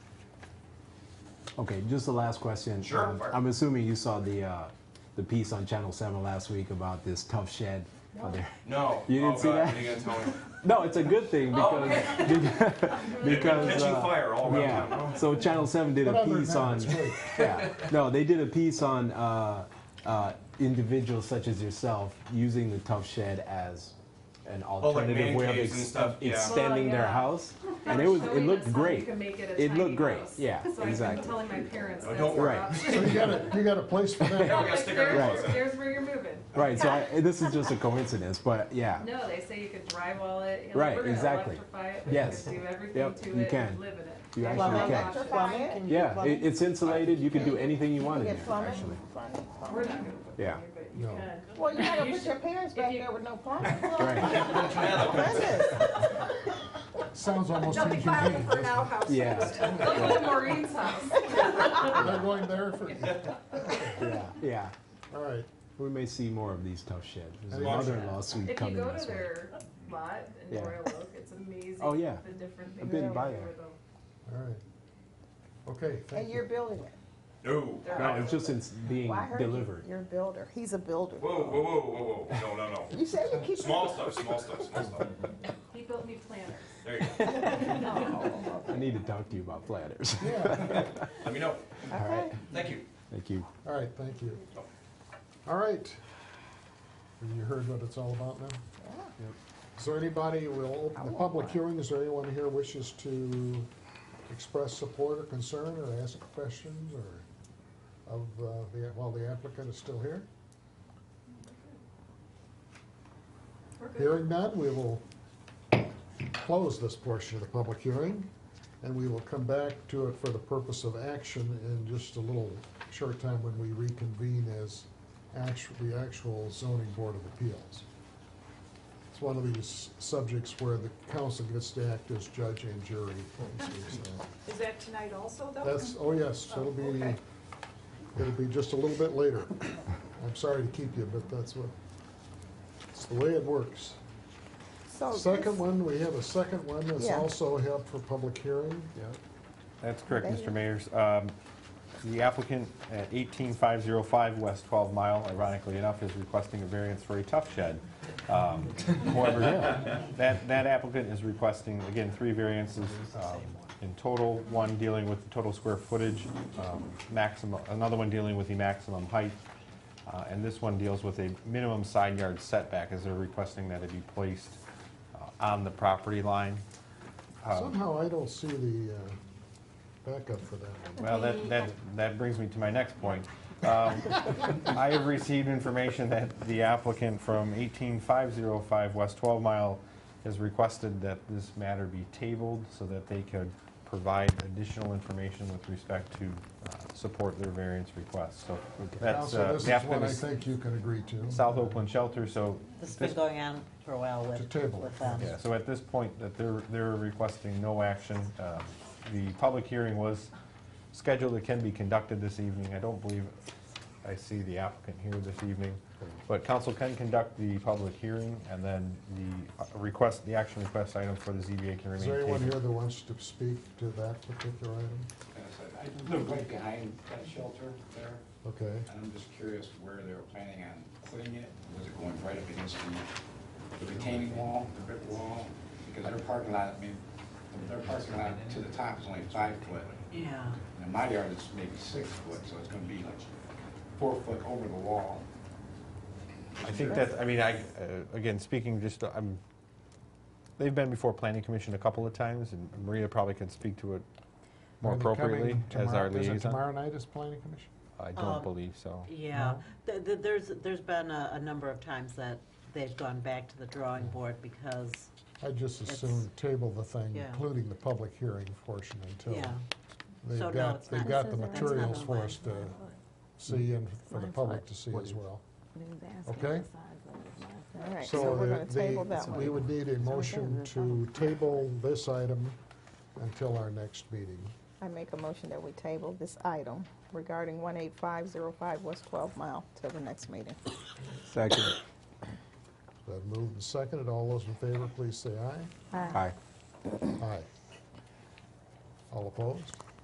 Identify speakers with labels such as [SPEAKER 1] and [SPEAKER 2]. [SPEAKER 1] Okay, just the last question.
[SPEAKER 2] Sure,
[SPEAKER 1] Um,
[SPEAKER 2] fire.
[SPEAKER 1] I'm assuming you saw the uh, the piece on Channel 7 last week about this tough shed out there.
[SPEAKER 2] No.
[SPEAKER 1] You didn't
[SPEAKER 2] oh,
[SPEAKER 1] see
[SPEAKER 2] God,
[SPEAKER 1] that?
[SPEAKER 2] What are you gonna tell me?
[SPEAKER 1] No, it's a good thing because
[SPEAKER 2] They've been
[SPEAKER 1] because
[SPEAKER 2] catching
[SPEAKER 1] uh,
[SPEAKER 2] fire Oh, all around town.
[SPEAKER 1] yeah. So Channel Seven did a
[SPEAKER 3] Whatever,
[SPEAKER 1] piece
[SPEAKER 3] no,
[SPEAKER 1] on
[SPEAKER 3] it's great.
[SPEAKER 1] yeah. No, they did a piece on uh, uh, individuals such as yourself using the tough shed as an
[SPEAKER 2] Oh, like man
[SPEAKER 1] alternative way of
[SPEAKER 2] caves and stuff, yeah.
[SPEAKER 1] extending
[SPEAKER 4] Well,
[SPEAKER 1] their
[SPEAKER 4] yeah.
[SPEAKER 1] house, and it was it
[SPEAKER 4] Showing us
[SPEAKER 1] looked
[SPEAKER 4] how You
[SPEAKER 1] great.
[SPEAKER 4] can make it a
[SPEAKER 1] It
[SPEAKER 4] tiny
[SPEAKER 1] looked great.
[SPEAKER 4] house.
[SPEAKER 1] Yeah,
[SPEAKER 4] so
[SPEAKER 1] exactly.
[SPEAKER 4] I've been telling my parents.
[SPEAKER 2] No,
[SPEAKER 4] that's
[SPEAKER 2] don't
[SPEAKER 4] our
[SPEAKER 1] worry.
[SPEAKER 4] option.
[SPEAKER 3] So you got a, you got a place for
[SPEAKER 2] Yeah,
[SPEAKER 3] that?
[SPEAKER 2] we gotta
[SPEAKER 4] Like,
[SPEAKER 2] stick our
[SPEAKER 4] there's,
[SPEAKER 2] elbows out.
[SPEAKER 4] there's where you're moving.
[SPEAKER 1] Right. So I, this is just a coincidence, but yeah.
[SPEAKER 4] No, they say you could drywall it. you know,
[SPEAKER 1] Right,
[SPEAKER 4] we're gonna
[SPEAKER 1] exactly.
[SPEAKER 4] Electrify it. but
[SPEAKER 1] Yes.
[SPEAKER 4] You could do everything
[SPEAKER 1] Yep,
[SPEAKER 4] to
[SPEAKER 1] you
[SPEAKER 4] it
[SPEAKER 1] can.
[SPEAKER 4] and live in it.
[SPEAKER 1] You
[SPEAKER 4] There's
[SPEAKER 1] actually
[SPEAKER 4] no
[SPEAKER 1] can.
[SPEAKER 4] option.
[SPEAKER 5] Plumbing?
[SPEAKER 1] Yeah, it, it's insulated. You can do anything you want
[SPEAKER 5] You
[SPEAKER 1] in there.
[SPEAKER 5] get plumbing?
[SPEAKER 1] Actually,
[SPEAKER 5] Plumbing?
[SPEAKER 4] We're not gonna put it
[SPEAKER 1] Yeah.
[SPEAKER 4] here, but you
[SPEAKER 3] No.
[SPEAKER 4] can.
[SPEAKER 5] Well, you gotta
[SPEAKER 4] You
[SPEAKER 5] put
[SPEAKER 4] should-
[SPEAKER 5] your parents back
[SPEAKER 4] you-
[SPEAKER 5] there with no plumbing.
[SPEAKER 1] right?
[SPEAKER 5] Goodness.
[SPEAKER 3] Sounds almost
[SPEAKER 6] They'll be filing
[SPEAKER 3] inhumane.
[SPEAKER 6] for an outhouse.
[SPEAKER 1] Yeah.
[SPEAKER 4] Look at Maureen's house.
[SPEAKER 3] They're going there for,
[SPEAKER 1] Yeah. Yeah.
[SPEAKER 3] all right.
[SPEAKER 1] We may see more of these tough sheds. There's
[SPEAKER 3] Hey,
[SPEAKER 1] another
[SPEAKER 3] Mark.
[SPEAKER 1] lawsuit
[SPEAKER 4] If you
[SPEAKER 1] coming.
[SPEAKER 4] go to
[SPEAKER 1] this way.
[SPEAKER 4] their lot in
[SPEAKER 1] Yeah.
[SPEAKER 4] Royal Oak, it's amazing.
[SPEAKER 1] Oh, yeah.
[SPEAKER 4] The different things.
[SPEAKER 1] I've
[SPEAKER 4] they
[SPEAKER 1] been
[SPEAKER 4] do
[SPEAKER 1] by
[SPEAKER 4] with
[SPEAKER 1] there.
[SPEAKER 4] them.
[SPEAKER 3] All right. Okay,
[SPEAKER 5] And
[SPEAKER 3] thank
[SPEAKER 5] you're
[SPEAKER 3] you.
[SPEAKER 5] building it.
[SPEAKER 2] No.
[SPEAKER 4] They're
[SPEAKER 1] No, it's just it's being
[SPEAKER 5] Well, I heard you-
[SPEAKER 1] delivered.
[SPEAKER 5] You're a builder. He's a builder.
[SPEAKER 2] Whoa, whoa, whoa, whoa, whoa. No, no, no.
[SPEAKER 5] You said you keep.
[SPEAKER 2] Small stuff, small stuff, small stuff.
[SPEAKER 4] He built me planners.
[SPEAKER 2] There you go.
[SPEAKER 1] I need to talk to you about platters.
[SPEAKER 3] Yeah,
[SPEAKER 2] Let me know.
[SPEAKER 5] Okay.
[SPEAKER 2] Thank you.
[SPEAKER 1] Thank you.
[SPEAKER 3] all right, thank you. All right. Have you heard what it's all about now? Yep. Is there anybody, we'll open the public hearing, is there anyone here wishes to express support or concern or ask questions or of, uh, the while the applicant is still here?
[SPEAKER 4] We're good.
[SPEAKER 3] Hearing none, we will close this portion of the public hearing, and we will come back to it for the purpose of action in just a little short time when we reconvene as actu the actual zoning board of appeals. It's one of these subjects where the council gets to act as judge and jury.
[SPEAKER 6] Is that tonight also, though?
[SPEAKER 3] That's, oh yes, it'll
[SPEAKER 6] Oh,
[SPEAKER 3] be,
[SPEAKER 6] okay.
[SPEAKER 3] it'll be just a little bit later. I'm sorry to keep you, but that's what, it's the way it works.
[SPEAKER 6] Oh,
[SPEAKER 5] So
[SPEAKER 3] Second
[SPEAKER 5] this-
[SPEAKER 3] one, we have a second one that's
[SPEAKER 5] Yeah.
[SPEAKER 3] also held for public hearing.
[SPEAKER 7] That's correct,
[SPEAKER 5] Oh, Thank you.
[SPEAKER 7] Mr. Mayor. Um, The applicant at 18505 West 12 Mile, ironically enough, is requesting a variance for a tough shed. Um, However, that that applicant is requesting, again, three variances um, in total, one dealing with the total square footage, um, maximum, another one dealing with the maximum height, uh, and this one deals with a minimum side yard setback, as they're requesting that it be placed uh, on the property line. Um,
[SPEAKER 3] Somehow I don't see the uh, backup for that one.
[SPEAKER 7] Well, that, that, that brings me to my next point. Um, I have received information that the applicant from 18505 West 12 Mile has requested that this matter be tabled so that they could provide additional information with respect to uh, support their variance request. So that's,
[SPEAKER 3] Also,
[SPEAKER 7] uh,
[SPEAKER 3] this
[SPEAKER 7] the
[SPEAKER 3] is one
[SPEAKER 7] applicant
[SPEAKER 3] I
[SPEAKER 7] is
[SPEAKER 3] think you can agree to.
[SPEAKER 7] South Oakland Shelter, so
[SPEAKER 8] This has
[SPEAKER 7] this-
[SPEAKER 8] been going on for a while with,
[SPEAKER 3] To table it.
[SPEAKER 8] with um, them.
[SPEAKER 7] yeah, so at this point, that they're, they're requesting no action. Um, The public hearing was scheduled, it can be conducted this evening. I don't believe I see the applicant here this evening. But council can conduct the public hearing, and then the uh, request, the action request item for the ZBA can
[SPEAKER 3] Is
[SPEAKER 7] remain
[SPEAKER 3] there anyone here
[SPEAKER 7] tabled.
[SPEAKER 3] that wants to speak to that particular item?
[SPEAKER 9] I live right behind that shelter there,
[SPEAKER 3] Okay,
[SPEAKER 9] and I'm just curious where they were planning on putting it. Was it going right up against the- the retaining wall, the brick wall? Because their parking lot, I mean, their parking lot to the top is only five foot.
[SPEAKER 8] Yeah.
[SPEAKER 9] And my yard is maybe six foot, so it's gonna be like four foot over the wall.
[SPEAKER 7] I think that, I mean, I, uh, again, speaking just, I'm, they've been before planning commission a couple of times, and Maria probably can speak to it more
[SPEAKER 3] Are they coming
[SPEAKER 7] appropriately as our
[SPEAKER 3] tomorrow- Is
[SPEAKER 7] liaison.
[SPEAKER 3] it tomorrow night is planning commission?
[SPEAKER 7] I
[SPEAKER 8] Um,
[SPEAKER 7] don't believe so.
[SPEAKER 8] Yeah, Th- th- there's, there's been a, a number of times that they've gone back to the drawing board because,
[SPEAKER 3] I'd just
[SPEAKER 8] It's-
[SPEAKER 3] assume table the thing,
[SPEAKER 8] Yeah.
[SPEAKER 3] including the public hearing portion until
[SPEAKER 8] yeah,
[SPEAKER 3] they've
[SPEAKER 8] So no,
[SPEAKER 3] got,
[SPEAKER 8] it's
[SPEAKER 3] they've
[SPEAKER 8] not-
[SPEAKER 3] got the
[SPEAKER 5] This isn't-
[SPEAKER 3] materials
[SPEAKER 8] that's not
[SPEAKER 3] for
[SPEAKER 8] online.
[SPEAKER 3] us to see and for the public to see as well. Okay.
[SPEAKER 5] All right, so
[SPEAKER 3] So
[SPEAKER 5] we're gonna
[SPEAKER 3] the-
[SPEAKER 5] table that
[SPEAKER 3] the, we
[SPEAKER 5] one.
[SPEAKER 3] would need a motion to table this item until our next meeting.
[SPEAKER 5] I make a motion that we table this item regarding one eight five zero five West Twelve Mile till the next meeting.
[SPEAKER 1] Second.
[SPEAKER 3] So I've moved and seconded. All those in favor, please say aye.
[SPEAKER 1] Hi.
[SPEAKER 3] Aye. All opposed?